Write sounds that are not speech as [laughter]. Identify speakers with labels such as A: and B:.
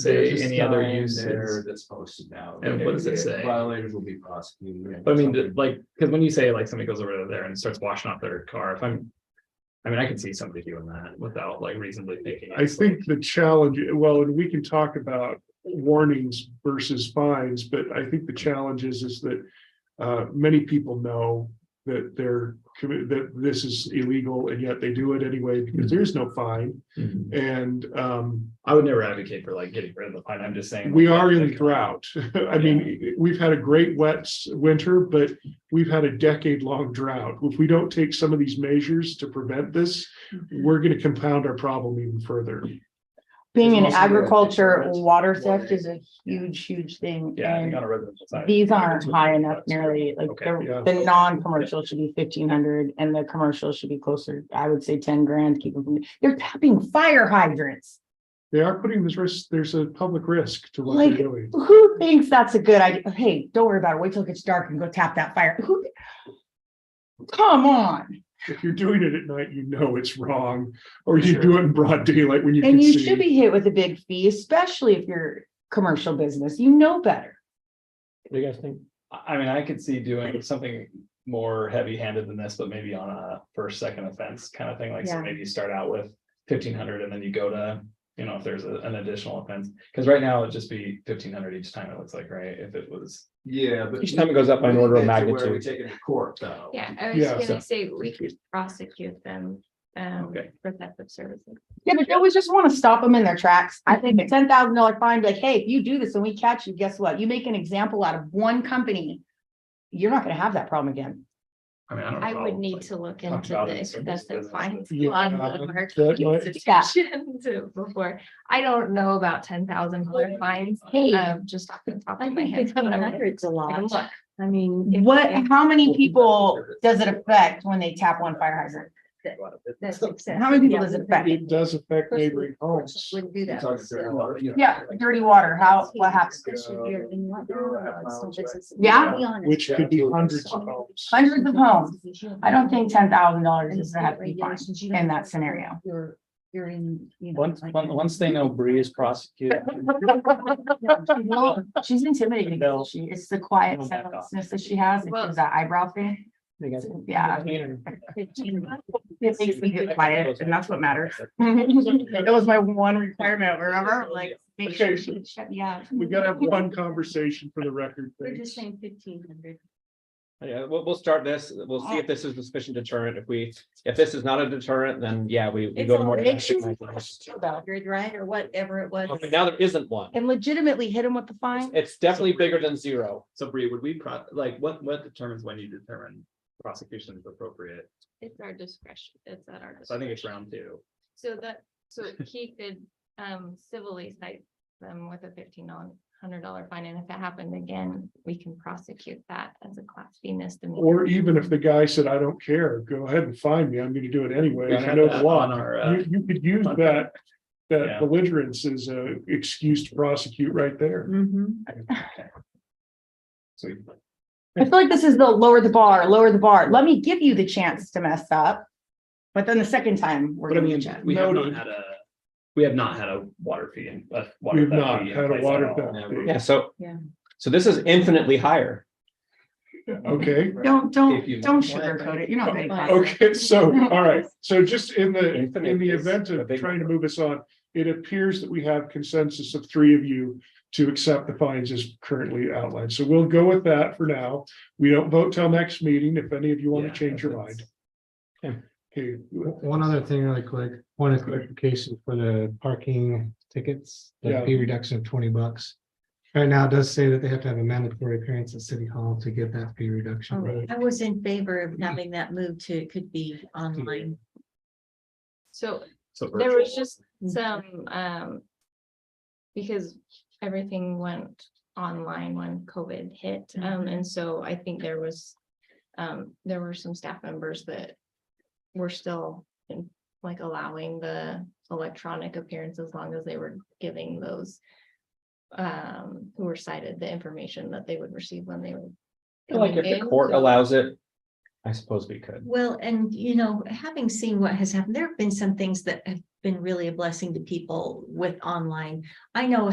A: say
B: There's a
A: any other
B: sign
A: use
B: there
A: is,
B: That's posted now.
A: And what does it say?
B: Violators will be prosecuted.
A: but I mean, th- like, because when you say like somebody goes over there and starts washing off their car, if I'm. I mean, I can see somebody doing that without like reasonably thinking.
C: I think the challenge, well, and we can talk about warnings versus fines, but I think the challenge is, is that. Uh, many people know that they're, commi- that this is illegal and yet they do it anyway because there's no fine.
A: Mhm.
C: And, um,
A: I would never advocate for like getting rid of the fine. I'm just saying.
C: we
A: like,
C: are in
A: like,
C: drought. [laughs] I mean, we've had a great wet s- winter, but we've had a decade-long drought. If we don't take some of these measures to prevent this, we're gonna compound our problem even further.
D: Being in
B: There's also the-
D: agriculture, water theft
B: Water.
D: is a huge, huge thing.
A: Yeah, I think
D: And
A: on a residential side.
D: these aren't
A: That's-
D: high enough nearly, like
A: Okay,
D: the,
C: yeah.
D: the non-commercial should be fifteen hundred and the commercial should be closer, I would say ten grand, keep them from, they're tapping fire hydrants.
C: They are putting this risk, there's a public risk to what they're
D: Like-
C: doing.
D: Who thinks that's a good idea? Hey, don't worry about it. Wait till it gets dark and go tap that fire. Who? Come on.
C: If you're doing it at night, you know it's wrong, or you do it in broad daylight when you can
D: And you should
C: see.
D: be hit with a big fee, especially if you're a commercial business. You know better.
A: What do you guys think? I, I mean, I could see doing something more heavy-handed than this, but maybe on a first, second offense kind of thing, like, so
D: Yeah.
A: maybe you start out with fifteen hundred and then you go to, you know, if there's a- an additional offense, because right now it'd just be fifteen hundred each time it looks like, right, if it was.
B: Yeah, but.
E: Each time it goes up by an order of
B: That's where We
E: magnitude.
B: take it to court, though.
F: Yeah, I
C: Yeah,
F: was
A: so-
F: gonna say we could prosecute them um
A: Okay.
F: for theft of services.
D: Yeah, but don't we just want to stop them in their tracks? I think a ten thousand dollar fine, be like, hey, if you do this and we catch you, guess what? You make an example out of one company. You're not gonna have that problem again.
A: I mean, I don't.
F: I would need to look
A: talk
F: into
A: about
F: the
A: it in terms of
F: excessive
A: business,
F: fines
C: but-
F: on
C: Yeah,
F: the
C: that
F: market [laughs]
C: might-
D: Yeah.
F: institution to- before. I don't know about ten thousand dollar fines,
D: Hey,
F: um, just off the top of my head. but I'm gonna
G: a
F: take a look.
G: I mean. if-
D: what,
G: if
D: how many people does it affect when they tap one fire hydrant?
G: that's excessive,
D: How many people
G: yeah,
D: does it
G: we
D: affect?
C: It does affect
G: Personally,
C: neighboring homes.
G: Wouldn't do that.
B: Talking to
G: so-
B: their lawyer, you know,
D: Yeah,
B: like,
D: dirty water, how, what happens?
G: Especially if you're in one room, it's no business.
D: Yeah.
G: Be honest.
C: Which could be hundreds of homes.
D: Hundreds of homes. I don't think ten thousand dollars is gonna have to be fine.
G: Regulations, you don't
D: in that
G: have to-
D: scenario.
G: You're, you're in, you know.
E: Once,
G: like-
E: once, once they know Bree is prosecuted,
D: Well, She's intimidating.
E: They'll-
D: She, it's the quiet
E: they'll back off.
D: senselessness that she has. It
F: Well-
D: was that eyebrow thing.
E: they got.
D: [laughs] Yeah. It makes me get quiet and that's what matters. That was my one requirement, remember? Like, make sure
C: Okay.
D: she shut Mm-hmm. me out.
C: We gotta have one conversation for the record.
G: We're
C: thanks.
G: just saying fifteen hundred.
E: Yeah, we'll, we'll start this. We'll see if this is a sufficient deterrent. If we, if this is not a deterrent, then yeah, we. we
G: It's
E: go to
G: all-
E: more
G: make sure
E: drastic
G: you-
E: measures.
G: Hundred, right, or whatever it was.
D: Oh,
E: Okay, Now there isn't one.
D: And legitimately hit him with the fine.
E: It's definitely bigger than zero.
A: So Bree, would we pro, like, what, what determines when you determine prosecution is appropriate?
F: It's our discretion. It's at our.
A: So I think it's
F: discretion.
A: round two.
F: So that, so he could um civilly cite them with a fifteen hundred dollar fine, and if it happened again, we can prosecute that as a class B misdemeanor.
C: Or even if the guy said, I don't care, go ahead and find me, I'm gonna do it anyway.
A: We
C: I
A: had
C: know
A: that
C: the law.
A: on our, uh,
C: You, you could use
A: on-
C: that,
A: Yeah.
C: that belligerence as a excuse to prosecute right there.
A: [laughs] Sweet.
D: I feel like this is the lower the bar, lower the bar. Let me give you the chance to mess up. But then the second time, we're
A: But I
D: gonna
A: mean,
D: check.
A: we have not
C: Noted.
A: had a, we have not had a water fee and.
C: We've not had a water theft.
E: Yeah, so.
G: Yeah.
E: So this is infinitely higher.
C: Okay,
D: Don't,
E: If you-
D: don't, don't sugarcoat it. You're not getting. caught.
C: okay, so, all right, so just in the, in
E: Infinite
C: the
E: is
C: event
E: a
C: of
E: big
C: trying to
E: number.
C: move us on, it appears that we have consensus of three of you to accept the fines as currently outlined. So we'll go with that for now. We don't vote till next meeting if any of you want to change your mind. Okay,
H: One other thing really quick, one of clarification for the parking tickets, the
C: Yeah.
H: fee reduction of twenty bucks. Right now, it does say that they have to have a mandatory appearance at City Hall to get that fee reduction.
C: right.
G: I was in favor of having that moved to, it could be online.
F: So
A: So
F: there was
A: virtual.
F: just some, um. Because everything went online when COVID hit, um, and so I think there was. Um, there were some staff members that were still in, like allowing the electronic appearance as long as they were giving those. Um, who were cited the information that they would receive when they were.
E: Like if
F: coming
E: the
F: in,
E: court
F: so-
E: allows it, I suppose we could.
G: Well, and you know, having seen what has happened, there have been some things that have been really a blessing to people with online. I know